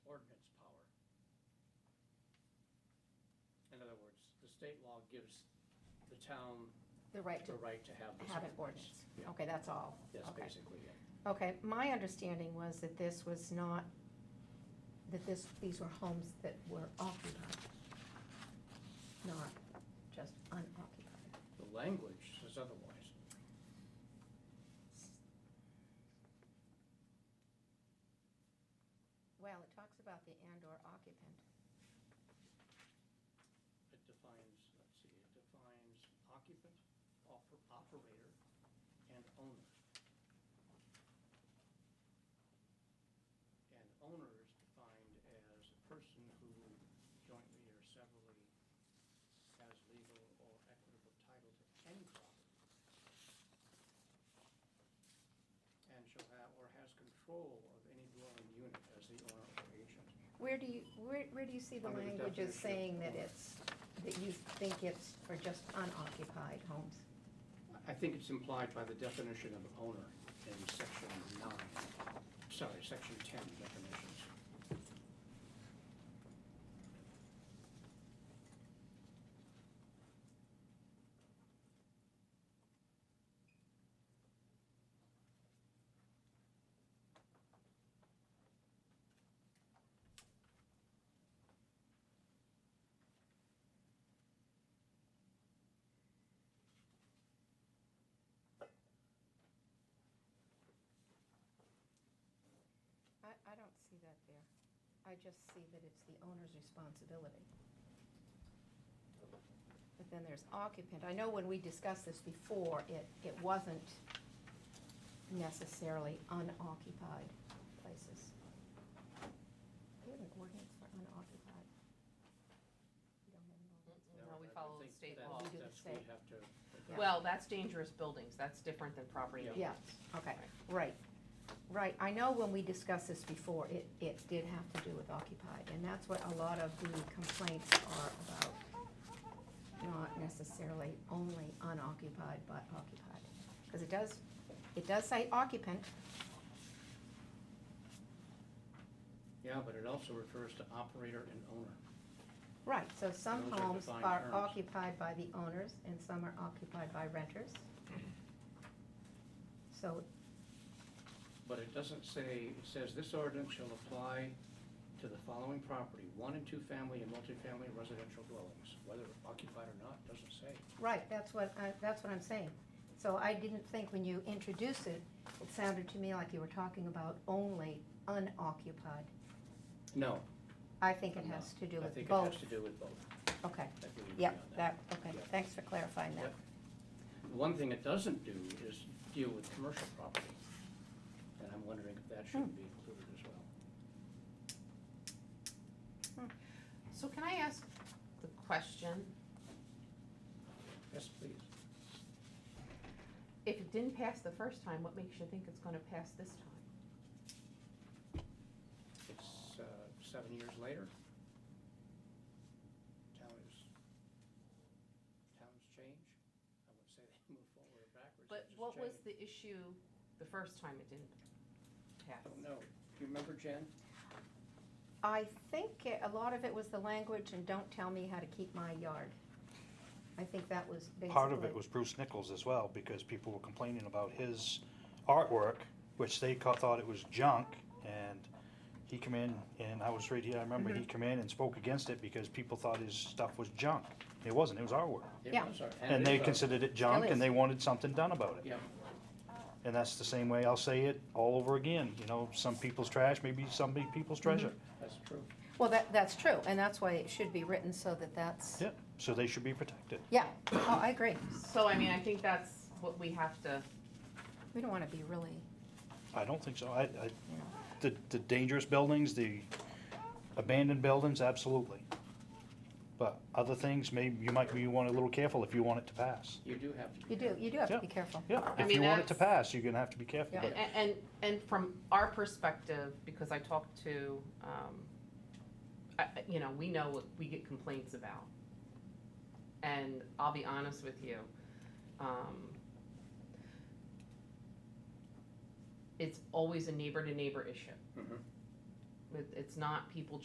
state law gives the town the right the to right to have this. have an ordinance. ordinance. Yeah. Okay, that's all. Yes, Okay. basically, yeah. Okay, my understanding was that this was not, that this, these were homes that were occupied, not just unoccupied. The language says otherwise. Well, it talks about the and/or occupant. It defines, let's see, it defines occupant, oper- operator, and owner. And owner is defined as a person who jointly or severally has legal or equitable title to any property. And shall have, or has control of any dwelling unit as the owner or agent. Where do you, where, where do you see the Under the language as definition. saying that it's, that you think it's for just unoccupied homes? I think it's implied by the definition of owner in section nine, sorry, section ten definitions. I, I don't see that there. I just see that it's the owner's responsibility. But then there's occupant. I know when we discussed this before, it, it wasn't necessarily unoccupied places. We have an ordinance for unoccupied. We don't have an ordinance. Now, No, we I follow the think state that- law. We do the That's, we state. have to. Yeah. Well, that's dangerous buildings, that's different than property. Yeah. Yeah, okay, right, right. I know when we discussed this before, it, it did have to do with occupied, and that's what a lot of the complaints are about. Not necessarily only unoccupied, but occupied, because it does, it does say occupant, Yeah, but it also refers to operator and owner. right, so some Those are homes defined are terms. occupied by the owners and some are occupied by renters. So, But it doesn't say, it says this ordinance shall apply to the following property, one and two-family and multifamily residential dwellings, whether occupied or not, doesn't say. Right, that's what, I- that's what I'm saying. So I didn't think when you introduced it, it sounded to me like you were talking about only unoccupied. No. I think it no. has to do I with think it has both. to do with both. Okay, I believe we yep, agree on that, okay, Yeah. thanks for clarifying that. Yep. One thing it doesn't do is deal with commercial property. And I'm wondering if that shouldn't be included as well. So can I ask the question, Yes, please. if it didn't pass the first time, what makes you think it's gonna pass this time? It's uh, seven years later. Town is, towns change. I wouldn't say they move forward or backwards. they But just what was change. the issue the first time it didn't I pass? don't know. Do you remember, Jen? I think it- a lot of it was the language and don't tell me how to keep my yard. I think that was basically. Part of it was Bruce Nichols as well, because people were complaining about his artwork, which they ca- thought it was junk, and he come in, and I was right here, I remember he come in and spoke against it because people thought his stuff was junk. It wasn't, it was artwork. It Yeah. was our- And it they was our- considered it junk, Still is. and they wanted something done about it. Yeah, And that's the same way I'll say it all over again, you know, some people's trash, maybe some big people's treasure. that's true. Well, that, that's true, and that's why it should be written so that that's, Yeah, so they should be protected. yeah, oh, I agree. So, I mean, I think that's what we have to, We don't wanna be really, I don't think so. I, I, you know. the, the dangerous buildings, the abandoned buildings, absolutely. But other things, maybe you might, you want a little careful if you want it to pass. You do have to. be You do, careful. you do have to Yeah. be careful. Yeah, I if mean, you want it to that's- pass, you're gonna have to be careful, Yeah. but and, and, and from our perspective, because I talked to, um, I, I- you know, we know what we get complaints about. And I'll be honest with you, um, it's always a neighbor to neighbor issue. Mhm. It, it's not people